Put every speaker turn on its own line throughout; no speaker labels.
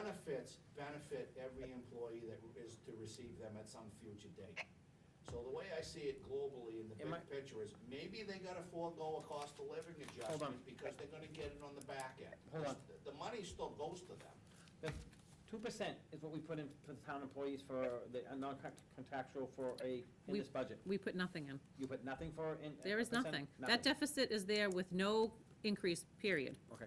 benefits benefit every employee that is to receive them at some future date. So the way I see it globally in the
Am I-
big picture is, maybe they gotta forego a cost of living adjustment because they're gonna get it on the back end.
Hold on.
The- The money still goes to them.
The two percent is what we put in for the town employees for the uh, non-contractual for a, in
We-
this budget.
We put nothing in.
You put nothing for in?
There is
1%?
nothing. That deficit is there with no increase, period.
Okay.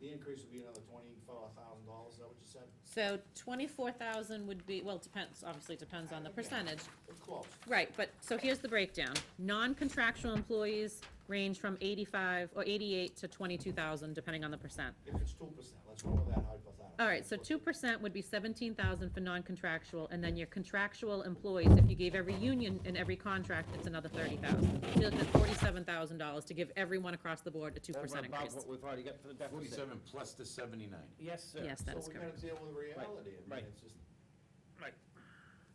The increase would be another twenty-four thousand dollars, is that what you said?
So twenty-four thousand would be, well, it depends, obviously it depends on the
Yeah.
percentage.
It's close.
Right, but, so here's the breakdown. Non-contractual employees range from eighty-five or eighty-eight to twenty-two thousand, depending on the percent.
If it's two percent, let's go with that hypothetical.
All right, so two percent would be seventeen thousand for non-contractual, and then your contractual employees, if you gave every union and every contract, it's another thirty thousand. You're looking at forty-seven thousand dollars to give everyone across the board a two
Over
percent
and above
increase.
what we've already got for the deficit.
Forty-seven plus the seventy-nine.
Yes, sir.
Yes, that is correct.
So we gotta deal with reality, I
Right.
mean, it's just,
Right.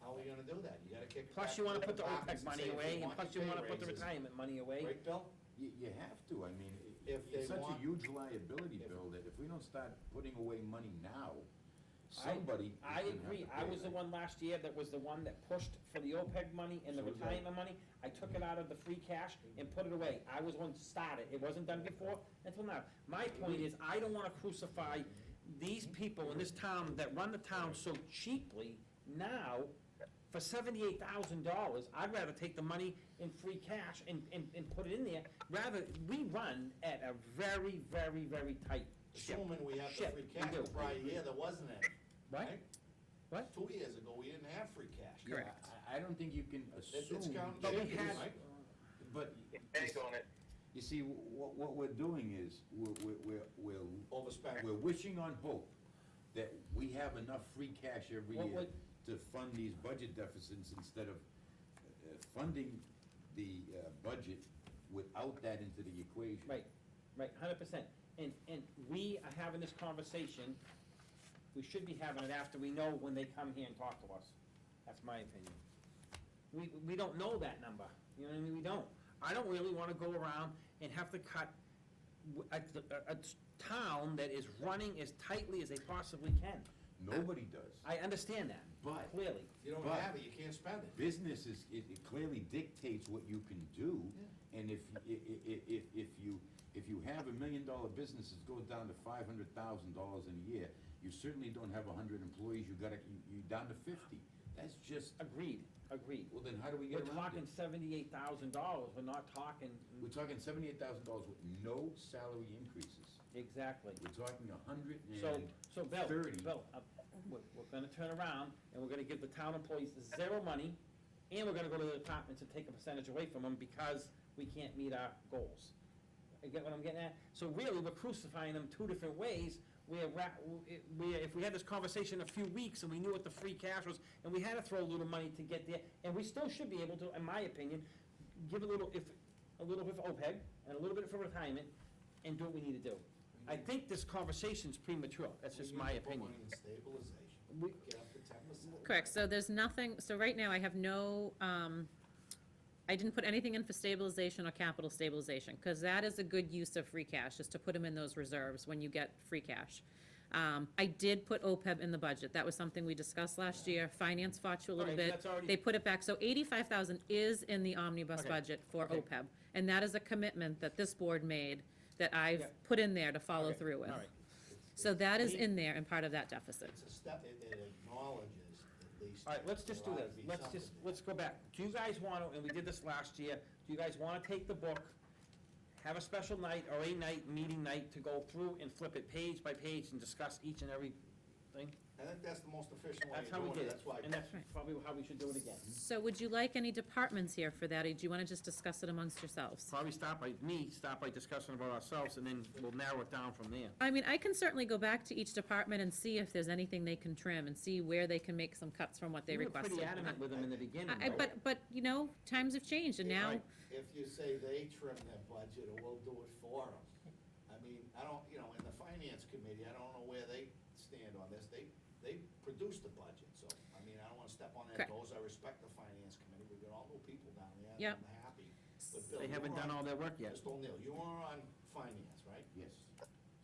how are we gonna do that? You gotta kick it back.
Plus you wanna
to the
put the
departments
OPEC
and
money
say, if
away, and
want
plus you
your pay
wanna put the
raises.
retirement money away.
Right, Bill?
You, you have to, I mean, i-
If they
it's such a
want-
huge liability
if-
bill that if we don't start putting away money now, somebody is
I
gonna have
agree,
to
I
pay
was the
that.
one last year that was the one that pushed for the OPEB money and the
So was I.
retirement money. I took it out of the free cash and put it away. I was one to start it. It wasn't done before until now. My point is, I don't wanna crucify these people in this town that run the town so cheaply now for seventy-eight thousand dollars. I'd rather take the money in free cash and, and, and put it in there. Rather, we run at a very, very, very tight ship.
Assuming we have the
Shit,
free
we
cash,
do.
the prior year, there wasn't any.
What? What?
Two years ago, we didn't have free cash.
Yeah, I, I don't think you can
It- It's
assume.
counting.
But we
chickens,
had-
right?
But
Bank on it.
you see, what, what we're doing is, we're, we're, we're, we're
Overspent.
We're wishing on hope that we have enough free cash every
What
year
would-
to fund these budget deficits instead of uh, funding the uh, budget without that into the equation.
Right, right, hundred percent. And, and we are having this conversation, we should be having it after we know when they come here and talk to us. That's my opinion. We, we don't know that number, you know what I mean, we don't. I don't really wanna go around and have to cut w- a, a- a town that is running as tightly as they possibly can.
Nobody does.
I understand that,
But-
clearly.
You don't
But-
have it, you can't spend it.
Business is, it it clearly dictates what you can do, and if, i- i- i- if, if you, if you have a million dollar business, it goes down to five hundred thousand dollars in a year. You certainly don't have a hundred employees, you gotta, you, you down to fifty. That's just,
Agreed, agreed.
well, then how do we
We're
get around it?
talking seventy-eight thousand dollars, we're not talking,
We're talking seventy-eight thousand dollars with no salary increases.
exactly.
We're talking a hundred
So,
and,
so Bill,
30.
Bill, uh, we're, we're gonna turn around and we're gonna give the town employees zero money and we're gonna go to the departments and take a percentage away from them because we can't meet our goals. You get what I'm getting at? So really, we're crucifying them two different ways. We're, ra- we, if we had this conversation a few weeks and we knew what the free cash was and we had to throw a little money to get there, and we still should be able to, in my opinion, give a little, if, a little bit for OPEB and a little bit for retirement and do what we need to do. I think this conversation's premature, that's just
We need
my
to put
opinion.
money in stabilization,
We-
get up to ten percent.
Correct, so there's nothing, so right now I have no, um, I didn't put anything in for stabilization or capital stabilization, because that is a good use of free cash, is to put them in those reserves when you get free cash. Um, I did put OPEB in the budget, that was something we discussed last year, finance fought you a little
Alright, so
bit.
that's already-
They put it back, so eighty-five thousand is in the omnibus
Okay,
budget for
okay.
OPEB, and that is a commitment that this board made, that I've
Yeah.
put in there to follow
Okay,
through with.
all right.
So that is
We-
in there and part of that deficit.
It's a step, it it acknowledges at least.
All right, let's just do
there ought
this,
to be
let's just,
something
let's go back. Do you guys wanna, and we did this last year, do you guys wanna take the book, have a special night or a night, meeting night to go through and flip it page by page and discuss each and every thing?
there. I think that's the most efficient way
That's
of
how we
doing
did
it,
it,
that's why.
and that's probably how we should do it again.
So would you like any departments here for that, or do you want to just discuss it amongst yourselves?
Probably start by, me, start by discussing about ourselves, and then we'll narrow it down from there.
I mean, I can certainly go back to each department and see if there's anything they can trim, and see where they can make some cuts from what they requested.
You were pretty adamant with them in the beginning,
I- I-
right?
but, but, you know, times have changed, and now,
Right.
If you say they trim their budget, or we'll do it for them. I mean, I don't, you know, in the finance committee, I don't know where they stand on this, they, they produce the budget, so, I mean, I don't wanna step on their
Correct.
toes, I respect the finance committee, we've got all new people down there, and
Yep.
I'm happy. But Bill,
They
you
haven't
were
done
on-
all their work yet.
Mr. O'Neill, you are on finance, right?
yes,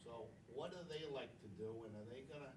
So what do they like to do, and are they gonna